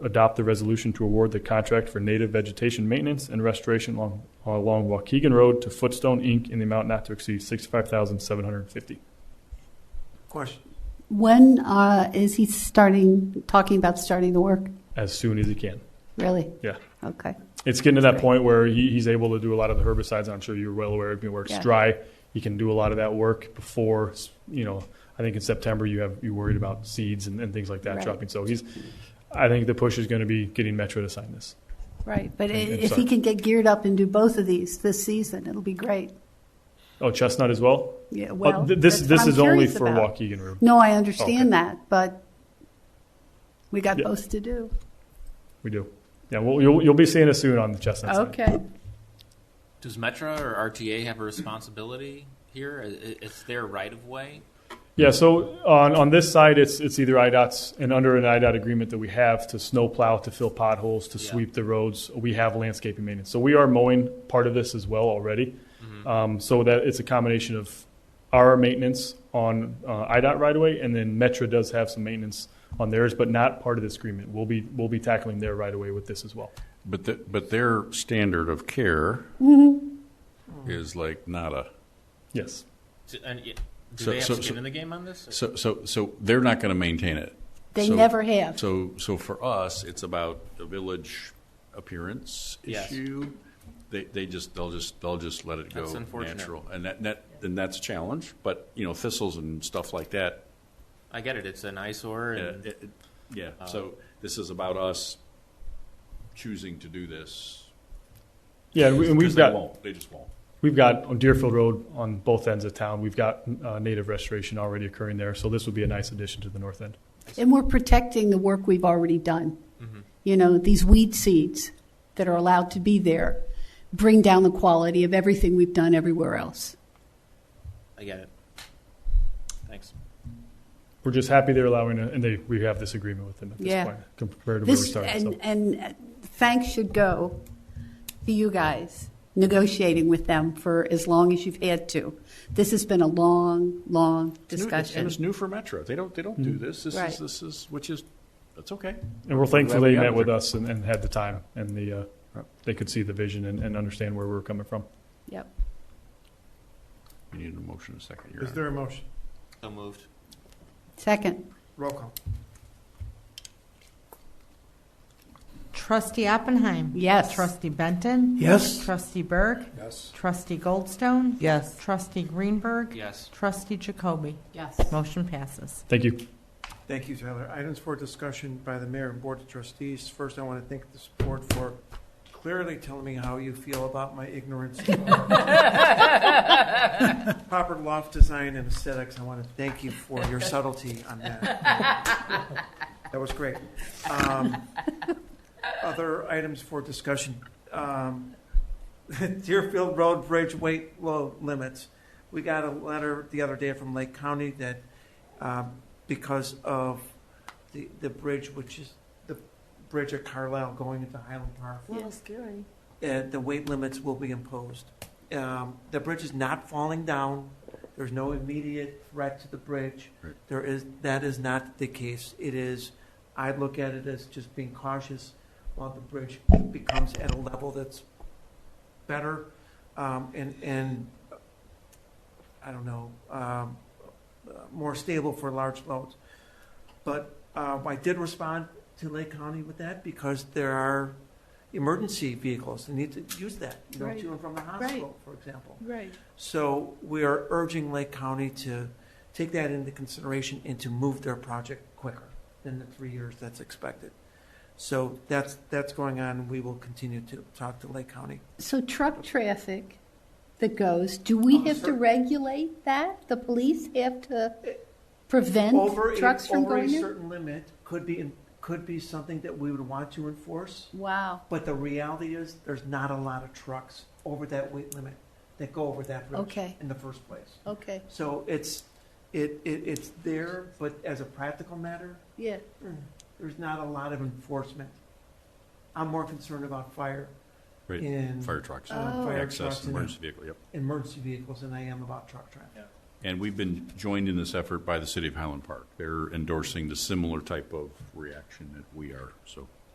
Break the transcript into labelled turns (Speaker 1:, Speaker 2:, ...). Speaker 1: adopt the resolution to award the contract for native vegetation maintenance and restoration along, along Waukegan Road to Footstone Inc. in the amount not to exceed sixty-five thousand seven hundred and fifty.
Speaker 2: Question.
Speaker 3: When uh, is he starting, talking about starting the work?
Speaker 1: As soon as he can.
Speaker 3: Really?
Speaker 1: Yeah.
Speaker 3: Okay.
Speaker 1: It's getting to that
Speaker 3: Right.
Speaker 1: point where he, he's able to do a lot of the herbicides. I'm sure you're well aware of it, where it's
Speaker 3: Yeah.
Speaker 1: dry. He can do a lot of that work before, you know, I think in September you have, you worried about seeds and, and things like that
Speaker 3: Right.
Speaker 1: dropping. So he's, I think the push is going to be getting Metro to sign this.
Speaker 3: Right. But i-
Speaker 1: And- and
Speaker 3: if
Speaker 1: sorry.
Speaker 3: he can get geared up and do both of these this season, it'll be great.
Speaker 1: Oh, Chestnut as well?
Speaker 3: Yeah.
Speaker 1: Oh,
Speaker 3: Well,
Speaker 1: th- this,
Speaker 3: that's
Speaker 1: this
Speaker 3: what I'm
Speaker 1: is only
Speaker 3: curious
Speaker 1: for
Speaker 3: about.
Speaker 1: Waukegan Road.
Speaker 3: No, I understand that, but we got
Speaker 1: Yeah.
Speaker 3: both to do.
Speaker 1: We do. Yeah, well, you'll, you'll be seeing us soon on the Chestnut side.
Speaker 3: Okay.
Speaker 4: Does Metro or RTA have a responsibility here? I- i- It's their right of way.
Speaker 1: Yeah, so on, on this side, it's, it's either IDOT's, and under an IDOT agreement that we have to snow plow, to fill potholes, to
Speaker 4: Yeah.
Speaker 1: sweep the roads, we have landscaping maintenance. So we are mowing part of this as well already. Um, so that it's a combination of our maintenance on uh, IDOT right away, and then Metro does have some maintenance on theirs, but not part of this agreement. We'll be, we'll be tackling their right away with this as well.
Speaker 5: But the, but their standard of care
Speaker 3: Mm-hmm.
Speaker 5: is like nada.
Speaker 1: Yes.
Speaker 4: Do, and, y- do
Speaker 5: So-
Speaker 4: they have
Speaker 5: so-
Speaker 4: skin
Speaker 5: so-
Speaker 4: in the game on this?
Speaker 5: So so so they're not going to maintain it.
Speaker 3: They
Speaker 5: So-
Speaker 3: never have.
Speaker 5: So so for us, it's about a village appearance
Speaker 4: Yes.
Speaker 5: issue. They they just they'll just they'll just let it go
Speaker 4: That's unfortunate.
Speaker 5: natural, and that, that and that's a challenge. But you know thistles and stuff like that.
Speaker 4: I get it. It's an eyesore,
Speaker 5: uh,
Speaker 4: and
Speaker 5: it- it- yeah.
Speaker 4: Uh,
Speaker 5: so this is about us choosing to do this.
Speaker 1: Yeah, and we- and we've
Speaker 5: Because they
Speaker 1: got.
Speaker 5: won't. They just won't.
Speaker 1: We've got on Deerfield Road on both ends of town, we've got uh, native restoration already occurring there, so this would be a nice addition to the north end.
Speaker 3: And we're protecting the work we've already done.
Speaker 1: Mm-hmm.
Speaker 3: You know, these weed seeds that are allowed to be there bring down the quality of everything we've done everywhere else.
Speaker 4: I get it. Thanks.
Speaker 1: We're just happy they're allowing, it, and they, we have this agreement with them at this
Speaker 3: Yeah.
Speaker 1: point compared to where we
Speaker 3: This,
Speaker 1: started.
Speaker 3: and,
Speaker 1: So
Speaker 3: and uh, thanks should go to you guys negotiating with them for as long as you've had to. This has been a long, long
Speaker 5: It's new- it's-
Speaker 3: discussion. Mm-hmm.
Speaker 5: And it's new for Metro. They don't, they don't do this. This
Speaker 3: Right.
Speaker 5: is, this is, which is, that's okay.
Speaker 1: And we're thankful
Speaker 5: Glad we
Speaker 1: they
Speaker 5: got
Speaker 1: met
Speaker 5: it.
Speaker 1: with us and, and had the time, and the, uh, they could see the vision and, and understand where we were coming from.
Speaker 3: Yep.
Speaker 5: We need a motion in a second. Your
Speaker 2: Is
Speaker 5: Honor.
Speaker 2: there a motion?
Speaker 4: So moved.
Speaker 3: Second,
Speaker 2: Roll call.
Speaker 6: Trustee Oppenheim.
Speaker 3: Yes.
Speaker 6: Trustee Benton.
Speaker 2: Yes.
Speaker 6: Trustee Berg.
Speaker 2: Yes.
Speaker 6: Trustee Goldstone. Yes. Trustee Greenberg.
Speaker 4: Yes.
Speaker 6: Trustee Jacoby.
Speaker 3: yes.
Speaker 6: Motion passes.
Speaker 1: Thank you.
Speaker 2: Thank you, Tyler. Items for discussion by the mayor and board of trustees. First, I want to thank this board for clearly telling me how you feel about my ignorance. of Proper loft design and aesthetics. I want to thank you for your subtlety on that. That was great. Um, Other items for discussion. Um, Deerfield Road Bridge weight low limits. We got a letter the other day from Lake County that um, because of the, the bridge, which is the bridge at Carlisle going into Highland Park.
Speaker 6: scary.
Speaker 2: Uh, the weight limits will be imposed. Um, the bridge is not falling down. There's no immediate threat to the bridge.
Speaker 5: Right.
Speaker 2: There is, that is not the case. It is, I look at it as just being cautious while the bridge becomes at a level that's better. Um, and, and, I don't know, um, uh, more stable for large loads. But, uh, I did respond to Lake County with that because there are emergency vehicles that need to use that, you know,
Speaker 3: Right.
Speaker 2: to and from the hospital, for example.
Speaker 3: Right.
Speaker 2: So we are urging Lake County to take that into consideration and to move their project quicker than the three years that's expected. So that's, that's going on. We will continue to talk to Lake County.
Speaker 3: So truck traffic that goes, do we
Speaker 2: Oh,
Speaker 3: have to
Speaker 2: sir.
Speaker 3: regulate that? The police have to prevent
Speaker 2: Over, a-
Speaker 3: trucks from
Speaker 2: over a
Speaker 3: going there?
Speaker 2: certain limit could be, could be something that we would want to enforce.
Speaker 3: Wow,
Speaker 2: But the reality is, there's not a lot of trucks over that weight limit that go over that bridge
Speaker 3: Okay.
Speaker 2: in the first place.
Speaker 3: okay,
Speaker 2: So it's, it, it, it's there, but as a practical matter,
Speaker 3: yeah,
Speaker 2: there's not a lot of enforcement. I'm more concerned about fire
Speaker 5: Right,
Speaker 2: in
Speaker 5: fire trucks,
Speaker 3: Oh.
Speaker 2: fire
Speaker 5: access,
Speaker 2: trucks and-
Speaker 5: emergency vehicle, yep.
Speaker 2: emergency vehicles than I am about truck traffic.
Speaker 5: And we've been joined in this effort by the city of Highland Park. They're endorsing the similar type of reaction that we are, so